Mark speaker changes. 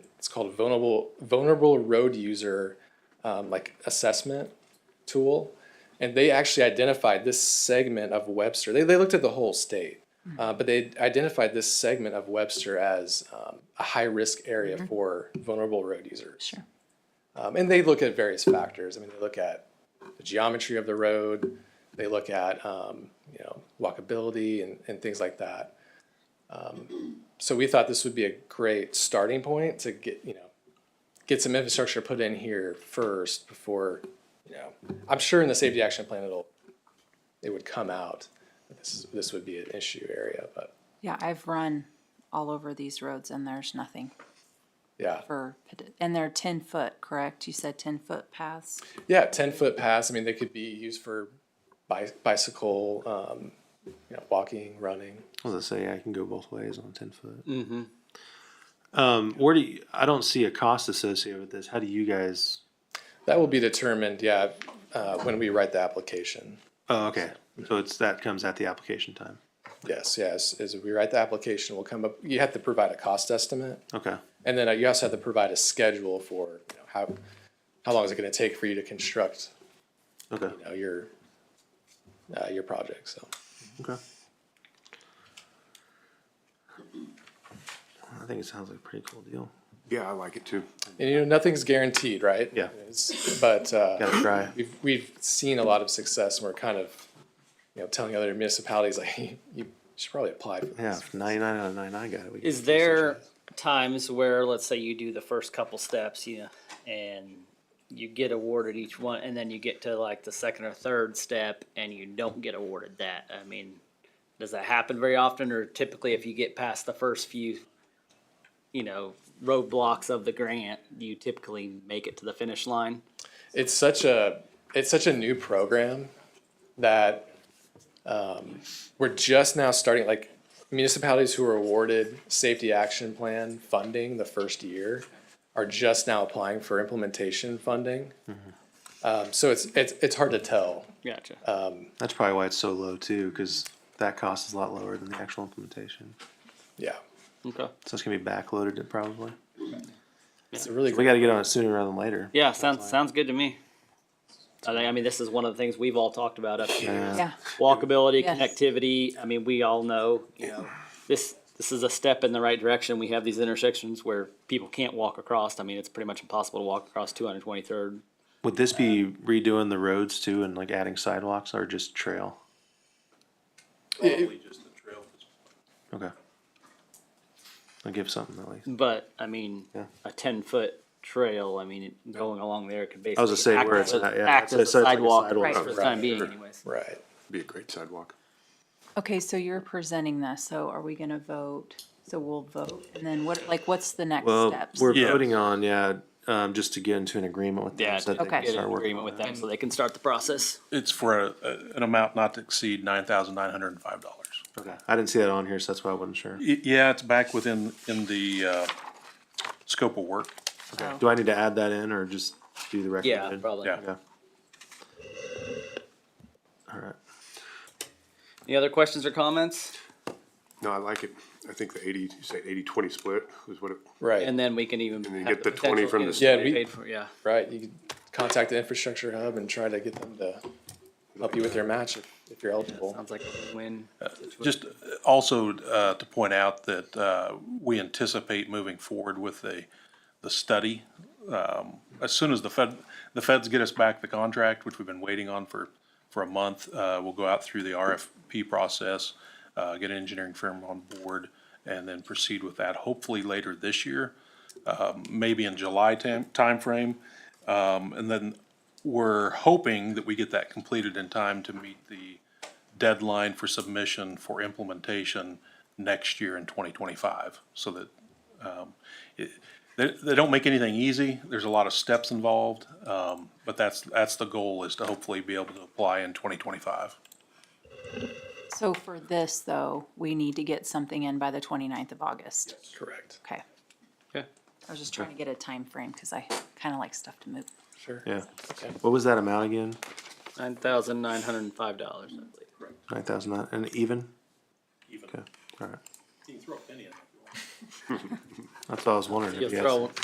Speaker 1: it's called vulnerable vulnerable road user um, like assessment tool, and they actually identified this segment of Webster. They they looked at the whole state, uh, but they identified this segment of Webster as um, a high risk area for vulnerable road users.
Speaker 2: Sure.
Speaker 1: Um, and they look at various factors. I mean, they look at the geometry of the road, they look at, um, you know, walkability and, and things like that. Um, so we thought this would be a great starting point to get, you know, get some infrastructure put in here first before, you know, I'm sure in the safety action plan it'll, it would come out. that This is, this would be an issue area, but
Speaker 2: Yeah, I've run all over these roads and there's nothing
Speaker 1: yeah.
Speaker 2: for, ped- and they're ten foot, correct? You said ten foot paths?
Speaker 1: Yeah, ten foot paths. I mean, they could be used for bi- bicycle, um, you know, walking, running.
Speaker 3: I was gonna say I can go both ways on ten foot. Mm-hmm. Um, where do you, I don't see a cost associated with this? How do you guys?
Speaker 1: That will be determined, yeah, uh, when we write the application.
Speaker 3: Oh, okay. So it's that comes at the application time.
Speaker 1: Yes, yes. As we write the application, we'll come up. You have to provide a cost estimate,
Speaker 3: Okay.
Speaker 1: and then uh, you also have to provide a schedule for you know, how how long is it going to take for you to construct
Speaker 3: Okay.
Speaker 1: you know, your uh, your project. So
Speaker 3: Okay. I think it sounds like a pretty cool deal.
Speaker 4: Yeah, I like it too.
Speaker 1: and you know nothing's guaranteed, right?
Speaker 3: Yeah.
Speaker 1: It's- but uh,
Speaker 3: Gotta try.
Speaker 1: we've we've seen a lot of success and we're kind of you know telling other municipalities like you, you should probably apply for
Speaker 3: Yeah,
Speaker 1: this.
Speaker 3: if ninety-nine out of ninety-nine got it. we can
Speaker 5: Is
Speaker 3: do
Speaker 5: there
Speaker 3: something.
Speaker 5: times where, let's say you do the first couple steps, you know, and you get awarded each one, and then you get to like the second or third step and you don't get awarded that? I mean, does that happen very often, or typically if you get past the first few, you know, roadblocks of the grant, you typically make it to the finish line?
Speaker 1: It's such a it's such a new program that um, we're just now starting like municipalities who are awarded safety action plan funding the first year are just now applying for implementation funding.
Speaker 3: Mm-hmm.
Speaker 1: Um, so it's it's it's hard to tell.
Speaker 5: Gotcha.
Speaker 3: That's probably why it's so low too, because that cost is a lot lower than the actual implementation.
Speaker 1: Yeah.
Speaker 5: Okay.
Speaker 3: So it's gonna be backloaded probably.
Speaker 1: It's a really
Speaker 3: We gotta get on it sooner rather than later.
Speaker 5: Yeah, sounds, sounds good to me. I think, I mean, this is one of the things we've all talked about up here.
Speaker 3: Uh,
Speaker 5: is
Speaker 2: Yeah,
Speaker 5: walkability,
Speaker 2: Yes.
Speaker 5: connectivity. I mean, we all know, you know, this, this is a step in the right direction. We have these intersections where people can't walk across. I mean, it's pretty much impossible to walk across two hundred twenty-third.
Speaker 3: Would this be redoing the roads too and like adding sidewalks or just trail?
Speaker 6: Probably just the trail.
Speaker 3: Okay. I'll give something at least.
Speaker 5: But, I mean,
Speaker 3: Yeah.
Speaker 5: a ten-foot trail, I mean, it- going along there could basically.
Speaker 3: I was gonna say
Speaker 5: act
Speaker 3: where it's
Speaker 5: as-
Speaker 3: at, yeah.
Speaker 5: Act
Speaker 3: So
Speaker 5: as a
Speaker 3: it's like a
Speaker 5: sidewalk
Speaker 3: sidewalk.
Speaker 5: for the
Speaker 1: Right.
Speaker 5: time being anyways.
Speaker 1: right.
Speaker 4: Be a great sidewalk.
Speaker 2: okay, so you're presenting this, so are we gonna vote? So we'll vote, and then what, like, what's the next
Speaker 3: Well,
Speaker 2: steps?
Speaker 3: we're
Speaker 6: Yeah.
Speaker 3: voting on, yeah, um, just to get into an agreement with them.
Speaker 5: Yeah,
Speaker 3: so that
Speaker 5: to
Speaker 3: they
Speaker 2: Okay.
Speaker 3: can
Speaker 5: get an
Speaker 3: start working
Speaker 5: agreement
Speaker 3: on
Speaker 5: with
Speaker 3: that.
Speaker 5: them so they can start the process.
Speaker 6: It's for a, a- an amount not to exceed nine thousand nine hundred and five dollars.
Speaker 3: Okay. I didn't see that on here, so that's why I wasn't sure.
Speaker 6: Yeah, it's back within, in the, uh, scope of work.
Speaker 2: So-
Speaker 3: Do I need to add that in or just do the recommended?
Speaker 5: Yeah, probably.
Speaker 6: Yeah.
Speaker 3: Okay. All right.
Speaker 5: Any other questions or comments?
Speaker 4: No, I like it. I think the eighty, you say eighty twenty split was what it,
Speaker 1: Right.
Speaker 5: And then we can even.
Speaker 4: then you get
Speaker 5: have
Speaker 4: the 20
Speaker 5: potential
Speaker 4: from
Speaker 5: get
Speaker 4: the
Speaker 5: it
Speaker 1: Yeah, we-
Speaker 5: paid for, Yeah.
Speaker 1: Right, you could contact the infrastructure hub and try to get them to help you with your match if, if you're eligible.
Speaker 5: Sounds like a win.
Speaker 6: Just uh, also uh, to point out that uh, we anticipate moving forward with the, the study. Um, As soon as the Fed, the feds get us back the contract, which we've been waiting on for, for a month, uh, we'll go out through the RFP process, uh, get an engineering firm on board, and then proceed with that, hopefully later this year, um, maybe in July time timeframe. Um, And then we're hoping that we get that completed in time to meet the deadline for submission for implementation next year in 2025, so that, um, it- they, they don't make anything easy, there's a lot of steps involved, um, but that's, that's the goal, is to hopefully be able to apply in 2025.
Speaker 2: So for this, though, we need to get something in by the 29th of August.
Speaker 1: Correct.
Speaker 2: Okay.
Speaker 5: Yeah.
Speaker 2: I was just trying to get a time frame because I kind of like stuff to move.
Speaker 1: Sure.
Speaker 3: Yeah. What was that amount again?
Speaker 5: Nine thousand nine hundred and five dollars, I believe.
Speaker 3: Nine thousand nine, and even? Okay, alright.
Speaker 6: You can throw a penny in.
Speaker 3: That's what I was wondering. if
Speaker 5: You'll
Speaker 3: you had
Speaker 5: throw